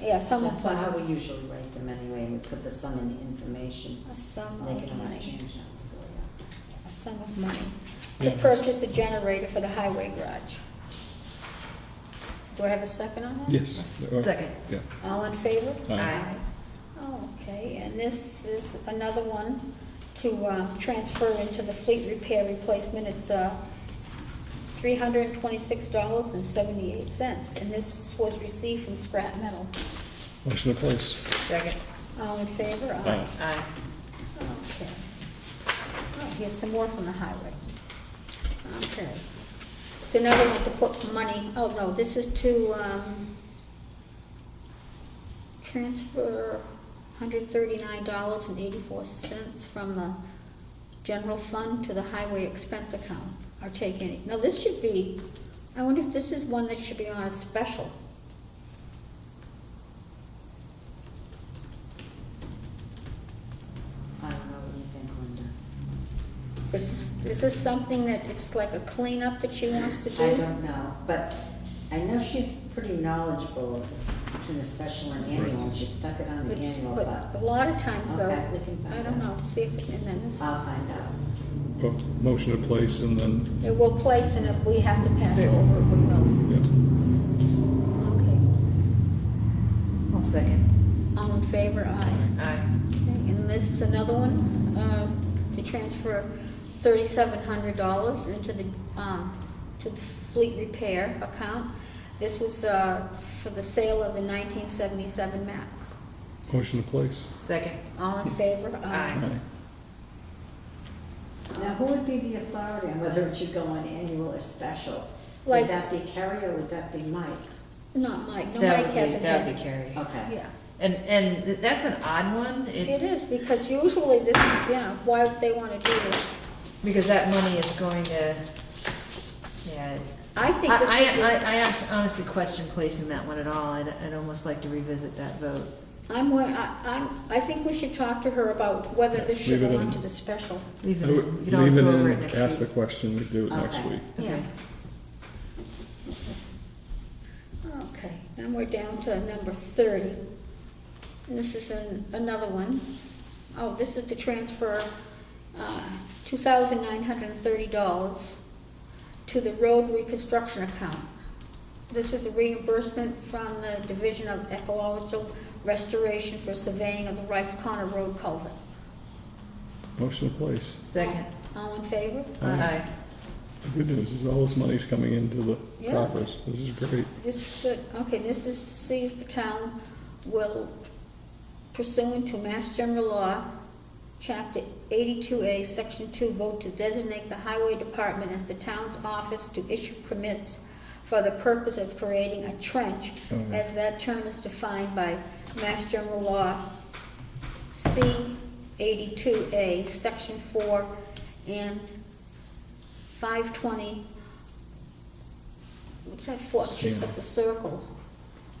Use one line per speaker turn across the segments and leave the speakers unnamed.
yeah, some
That's
of
not how
them,
we usually rate them anyway, we put the sum in the information,
some
they
of
can always
Oh, money,
change that, so, yeah.
a sum of money to
Yeah.
purchase a generator for the highway garage. Do I have a second on that?
Yes. there are.
Second.
Yeah.
All in favor?
Aye.
Aye.
Oh, okay, and this is another one to uh, transfer into the fleet repair replacement. It's uh, $326.78, and this was received from scrap metal.
Motion to place.
Second.
All in favor?
Aye.
Aye.
Okay. Oh, here's some more from the highway. Okay. It's another one to put money, oh, no, this is to, um, transfer hundred thirty-nine dollars and eighty-four cents from the general fund to the highway expense account, or take any. Now, this should be, I wonder if this is one that should be on a special.
I don't know what you think, Linda.
Is, is this something that it's like a cleanup that she wants to do?
I don't know, but I know she's pretty knowledgeable of this, between the special and annual, and she stuck it on the
Which-
annual,
but
but
A lot of times though,
Okay, we can find
I don't
out.
know, see if, and then this,
I'll find out.
Well, Oh, Motion to place and then,
it will place and if we have to pass over, we will.
yeah.
Okay,
I'll second.
all in favor, aye.
Aye.
Okay, And this is another one, uh, to transfer thirty-seven hundred dollars into the, um, to the fleet repair account. This was, uh, for the sale of the nineteen seventy-seven map.
Motion to place.
Second.
All in favor, aye.
Aye.
Aye.
Now, who would be the authority on whether it should go on annual or special?
Like-
Would that be Carrie or would that be Mike?
Not Mike, no,
That
Mike
would be,
hasn't
that
had.
would be Carrie.
Okay.
Yeah.
And, and th- that's an odd one,
It
it,
is, because usually this is, yeah, why would they want to do this?
because that money is going to, yeah.
I
I,
think this
I,
would
I- I abs- honestly question placing that one at all, I'd, I'd almost like to revisit that vote.
be, I'm, wa- I, I'm- I think we should talk to her about whether this should
Leave it
go
in.
on to the special.
Leave it,
I
in.
would
you can always
Oh, leave
go
it
over it
in,
next week.
Ask the question, we do it next
Okay.
week.
Yeah.
Okay.
Okay, then we're down to number thirty. And This is an, another one. Oh, this is the transfer, uh, two thousand nine hundred and thirty dollars to the road reconstruction account. This is a reimbursement from the Division of Ecological Restoration for surveying of the Rice Corner Road culvert.
Motion to place.
Second.
All in favor?
Aye.
The good news is all this money's coming into the
Yeah.
coffers. This is great.
This is good. Okay, this is to see if the town will pursuant to Mass General Law, Chapter 82A, Section 2, vote to designate the Highway Department as the town's office to issue permits for the purpose of creating a trench,
Oh.
as that term is defined by Mass General Law, C 82A, Section 4, and 520, what's that for? She's got the circle. Oh,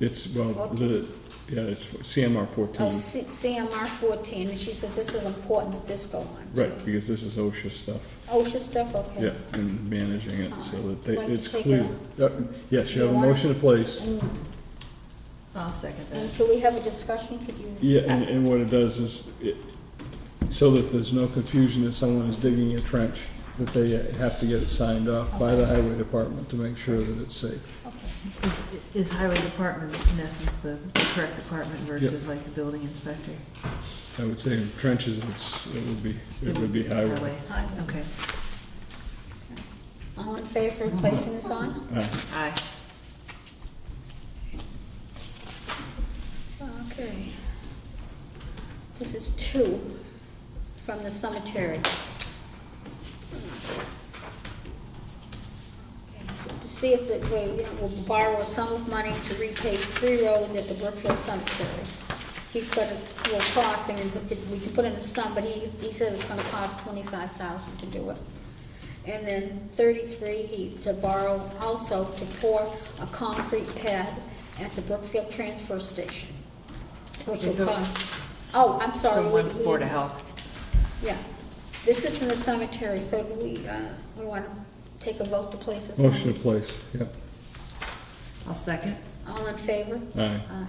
It's, well, the, yeah, it's for- CMR
Oh,
fourteen.
C- CMR 14, and she said this is important that this go on.
Right, because this is OSHA stuff.
OSHA stuff, okay.
Yeah, and managing it so that they,
Like to
it's
take
clear. Uh, Yes, you have a
You want it?
motion to place.
And
I'll second that.
and can we have a discussion? Could you?
Yeah, and, and what it does is, it, so that there's no confusion if someone is digging a trench, that they have to get it signed off by the highway department to make sure that it's safe.
Okay.
Is- Is highway department, in essence, the the correct department versus like the building inspector?
I would say in trenches, it's, it would be, it would be highway.
Okay.
All in favor of placing this on?
Uh,
Aye.
Okay. This is two from the cemetery. Okay, so To see if the, we, you know, will borrow a sum of money to repay three roads at the Brookfield Cemetery. He's got a, will cost, I mean, we can put in a sum, but he, he said it's gonna cost twenty-five thousand to do it. And then thirty-three, he, to borrow also to pour a concrete pad at the Brookfield Transfer Station, which
Okay, so-
will cost, oh, I'm sorry.
So
we-
one's
we-
Board of Health.
Yeah, this is from the cemetery, so do we, uh, we wanna take a vote to place this on?
Motion to place, yeah.
I'll second.
All in favor?
Aye.
Aye.